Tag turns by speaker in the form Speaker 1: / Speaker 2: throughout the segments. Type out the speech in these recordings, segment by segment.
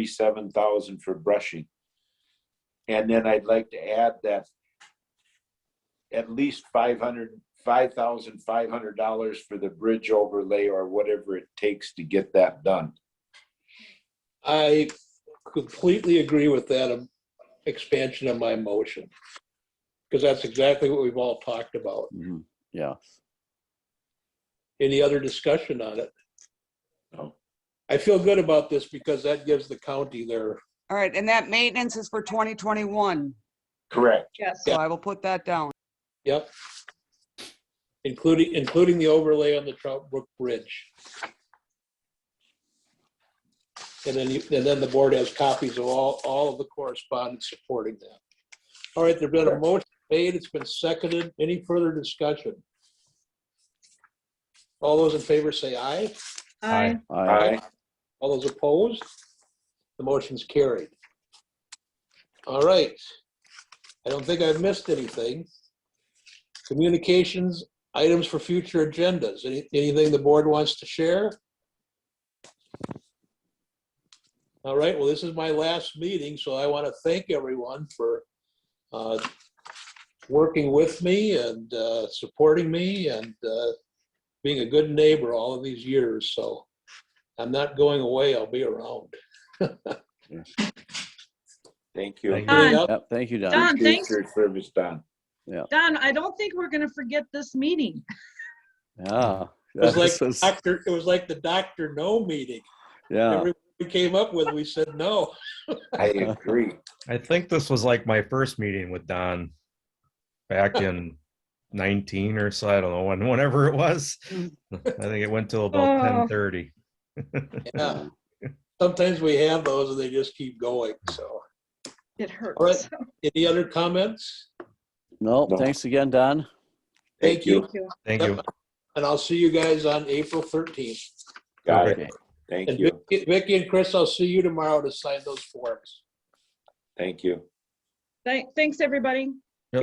Speaker 1: thirty-seven thousand for brushing. And then I'd like to add that at least five hundred, five thousand five hundred dollars for the bridge overlay or whatever it takes to get that done.
Speaker 2: I completely agree with that um, expansion of my motion. Because that's exactly what we've all talked about.
Speaker 3: Mhm. Yeah.
Speaker 2: Any other discussion on it?
Speaker 1: No.
Speaker 2: I feel good about this because that gives the county their,
Speaker 4: All right, and that maintenance is for 2021,
Speaker 1: Correct.
Speaker 5: Yes,
Speaker 4: so I will put that down.
Speaker 2: yep. Including, including the overlay on the Trout Brook Bridge. And then, you- and then the board has copies of all, all of the correspondence supporting that. All right, there's been a motion made, it's been seconded. Any further discussion? All those in favor say aye.
Speaker 5: aye,
Speaker 3: I,
Speaker 1: Aye.
Speaker 2: All those opposed? The motion's carried. All right. I don't think I've missed anything. Communications, items for future agendas. Any- Anything the board wants to share? All right, well, this is my last meeting, so I want to thank everyone for uh, working with me and uh, supporting me and uh, being a good neighbor all of these years, so. I'm not going away. I'll be around.
Speaker 1: Thank you.
Speaker 3: Thank
Speaker 5: Don.
Speaker 3: you. Yep, Thank you, Don.
Speaker 5: Don.
Speaker 1: Appreciate
Speaker 5: Um, thanks.
Speaker 1: Your service, Don.
Speaker 5: Don, I don't think we're gonna forget this meeting.
Speaker 3: Yeah.
Speaker 2: It was
Speaker 3: This
Speaker 2: like
Speaker 3: is-
Speaker 2: doctor, it was like the doctor no meeting.
Speaker 3: Yeah.
Speaker 2: Everyone we came up with, we said no.
Speaker 1: I agree.
Speaker 6: I think this was like my first meeting with Don back in 19 or so. I don't know when, whenever it was. I think it went till about
Speaker 5: Oh.
Speaker 6: 10:30.
Speaker 2: Yeah. Sometimes we have those and they just keep going. So
Speaker 5: It
Speaker 2: All
Speaker 5: hurts.
Speaker 2: right. any other comments?
Speaker 3: No,
Speaker 1: No.
Speaker 3: thanks again, Don.
Speaker 2: Thank you.
Speaker 5: Thank you.
Speaker 6: Thank you.
Speaker 2: And I'll see you guys on April 13th.
Speaker 1: Got
Speaker 3: Okay.
Speaker 1: it. Thank
Speaker 2: And
Speaker 1: you.
Speaker 2: Vicky Vicky and Chris, I'll see you tomorrow to sign those forms.
Speaker 1: Thank you.
Speaker 5: Thank- Thanks, everybody.
Speaker 6: Yep,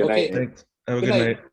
Speaker 1: Good night.
Speaker 2: Okay.
Speaker 6: Thanks. Have a
Speaker 2: Good
Speaker 6: good
Speaker 2: night.
Speaker 6: night.